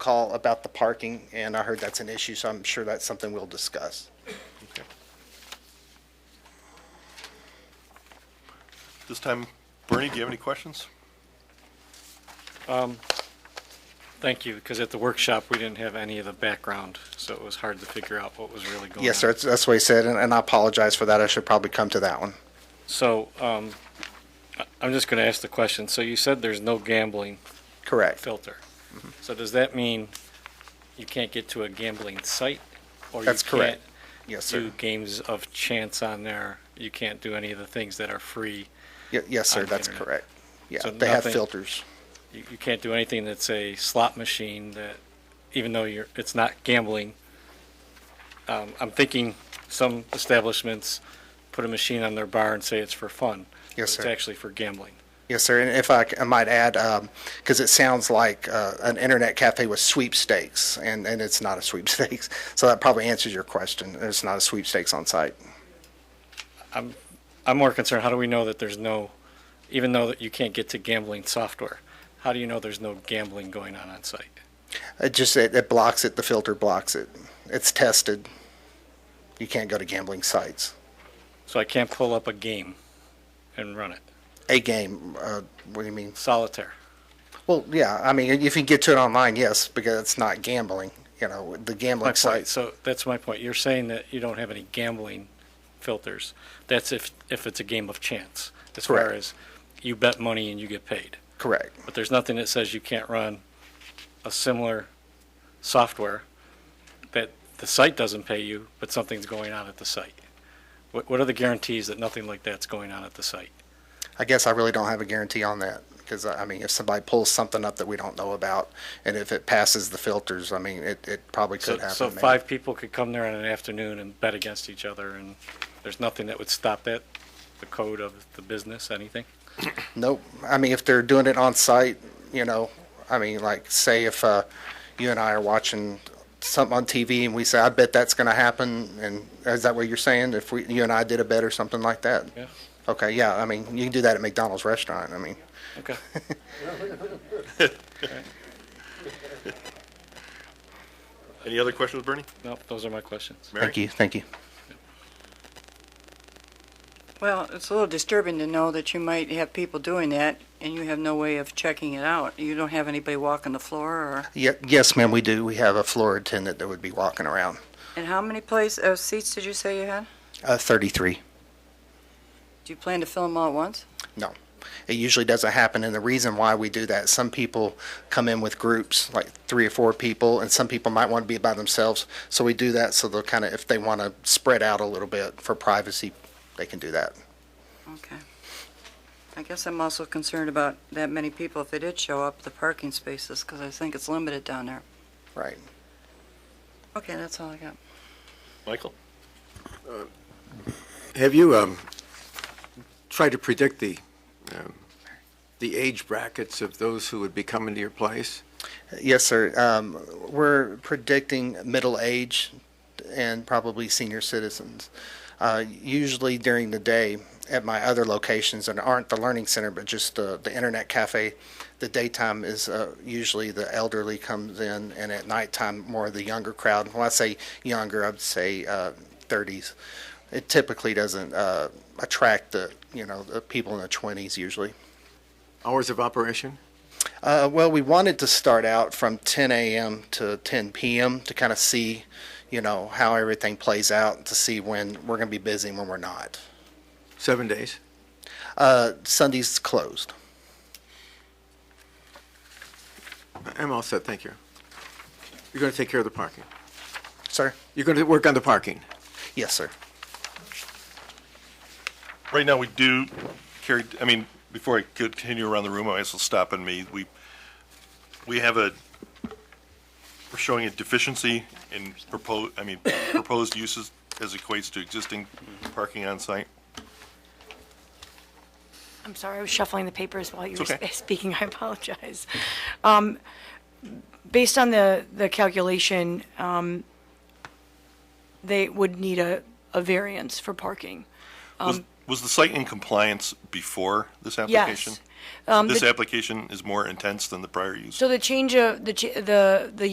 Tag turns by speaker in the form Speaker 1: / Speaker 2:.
Speaker 1: call about the parking, and I heard that's an issue, so I'm sure that's something we'll discuss.
Speaker 2: This time, Bernie, do you have any questions?
Speaker 3: Thank you, because at the workshop, we didn't have any of the background, so it was hard to figure out what was really going on.
Speaker 1: Yes, sir, that's- that's what he said, and- and I apologize for that. I should probably come to that one.
Speaker 3: So um, I- I'm just going to ask the question. So you said there's no gambling
Speaker 1: Correct.
Speaker 3: filter.
Speaker 1: Mm-hmm.
Speaker 3: So does that mean you can't get to a gambling site? or you
Speaker 1: That's correct.
Speaker 3: can't
Speaker 1: Yes,
Speaker 3: Do
Speaker 1: sir.
Speaker 3: games of chance on there? You can't do any of the things that are free?
Speaker 1: Ye- Yes, sir,
Speaker 3: on the
Speaker 1: that's
Speaker 3: internet.
Speaker 1: correct. Yeah,
Speaker 3: So
Speaker 1: they have
Speaker 3: nothing-
Speaker 1: filters.
Speaker 3: You you can't do anything that's a slot machine that, even though you're, it's not gambling. Um, I'm thinking some establishments put a machine on their bar and say it's for fun.
Speaker 1: Yes,
Speaker 3: but
Speaker 1: sir.
Speaker 3: It's actually for gambling.
Speaker 1: Yes, sir. And if I, c- I might add, because it sounds like uh, an internet cafe with sweepstakes, and, and it's not a sweepstakes. So that probably answers your question. There's not a sweepstakes on site.
Speaker 3: I'm more concerned, how do we know that there's no, even though that you can't get to gambling software, how do you know there's no gambling going on on site?
Speaker 1: It just it, it blocks it. The filter blocks it. It's tested. You can't go to gambling sites.
Speaker 3: So I can't pull up a game and run it,
Speaker 1: A game. Uh, what do you mean?
Speaker 3: solitaire.
Speaker 1: Well, yeah. I mean, if you get to it online, yes, because it's not gambling. You know, the
Speaker 3: My
Speaker 1: gambling
Speaker 3: point,
Speaker 1: sites.
Speaker 3: so that's my point. You're saying that you don't have any gambling filters. That's if, if it's a game of chance, as far
Speaker 1: Correct.
Speaker 3: as you bet money and you get paid.
Speaker 1: Correct.
Speaker 3: But there's nothing that says you can't run a similar software that the site doesn't pay you, but something's going on at the site. What, what are the guarantees that nothing like that's going on at the site?
Speaker 1: I guess I really don't have a guarantee on that because I mean, if somebody pulls something up that we don't know about, and if it passes the filters, I mean, it, it probably
Speaker 3: So,
Speaker 1: could happen.
Speaker 3: so
Speaker 1: maybe.
Speaker 3: five people could come there in an afternoon and bet against each other, and there's nothing that would stop that, the code of the business, anything?
Speaker 1: Nope. I mean, if they're doing it on site, you know, I mean, like, say if uh, you and I are watching something on TV and we say, "I bet that's going to happen," and is that what you're saying? If we, you and I did a bet or something like that?
Speaker 3: Yeah.
Speaker 1: Okay. Yeah. I mean, you can do that at McDonald's restaurant. I mean,
Speaker 3: Okay.
Speaker 2: Any other questions, Bernie?
Speaker 3: Nope, those are my questions.
Speaker 2: Mary?
Speaker 1: thank you, thank you.
Speaker 4: Well, it's a little disturbing to know that you might have people doing that and you have no way of checking it out. You don't have anybody walking the floor or,
Speaker 1: Ye- yes, ma'am. We do. We have a floor attendant that would be walking around.
Speaker 4: and how many place, uh, seats did you say you had?
Speaker 1: Uh, Thirty-three.
Speaker 4: Do you plan to fill them all at once?
Speaker 1: No. It usually doesn't happen. And the reason why we do that, some people come in with groups, like three or four people, and some people might want to be by themselves. So we do that so they'll kind of, if they want to spread out a little bit for privacy, they can do that.
Speaker 4: Okay. I guess I'm also concerned about that many people if they did show up, the parking spaces, because I think it's limited down there.
Speaker 1: Right.
Speaker 4: Okay, that's all I got.
Speaker 2: Michael?
Speaker 5: Have you um, tried to predict the, um, the age brackets of those who would be coming to your place?
Speaker 1: Yes, sir. Um, we're predicting middle age and probably senior citizens. Uh, usually during the day at my other locations and aren't the learning center, but just the, the internet cafe, the daytime is uh, usually the elderly comes in, and at nighttime more of the younger crowd. When I say younger, I'd say uh, 30s. It typically doesn't uh, attract the you know the people in their 20s usually.
Speaker 5: Hours of operation?
Speaker 1: Uh, well, we wanted to start out from 10 a.m. to 10 p.m. to kind of see, you know, how everything plays out to see when we're going to be busy and when we're not.
Speaker 5: Seven days?
Speaker 1: Uh, Sunday's closed.
Speaker 5: I'm all set, thank you. You're going to take care of the parking?
Speaker 1: Sir?
Speaker 5: You're going to work on the parking?
Speaker 1: Yes, sir.
Speaker 2: Right now, we do carry, I mean, before I continue around the room, I might as well stop and me. We, we have a, we're showing a deficiency in proposed, I mean, proposed uses as equates to existing parking on site.
Speaker 6: I'm sorry, I was shuffling the papers while you were
Speaker 2: It's okay.
Speaker 6: sp- speaking, I apologize. Um, Based on the, the calculation, um, they would need a, a variance for parking. Um,
Speaker 2: Was, was the site in compliance before this application?
Speaker 6: Yes. Um,
Speaker 2: This
Speaker 6: the-
Speaker 2: application is more intense than the prior use?
Speaker 6: So the change of, the, cha- the, the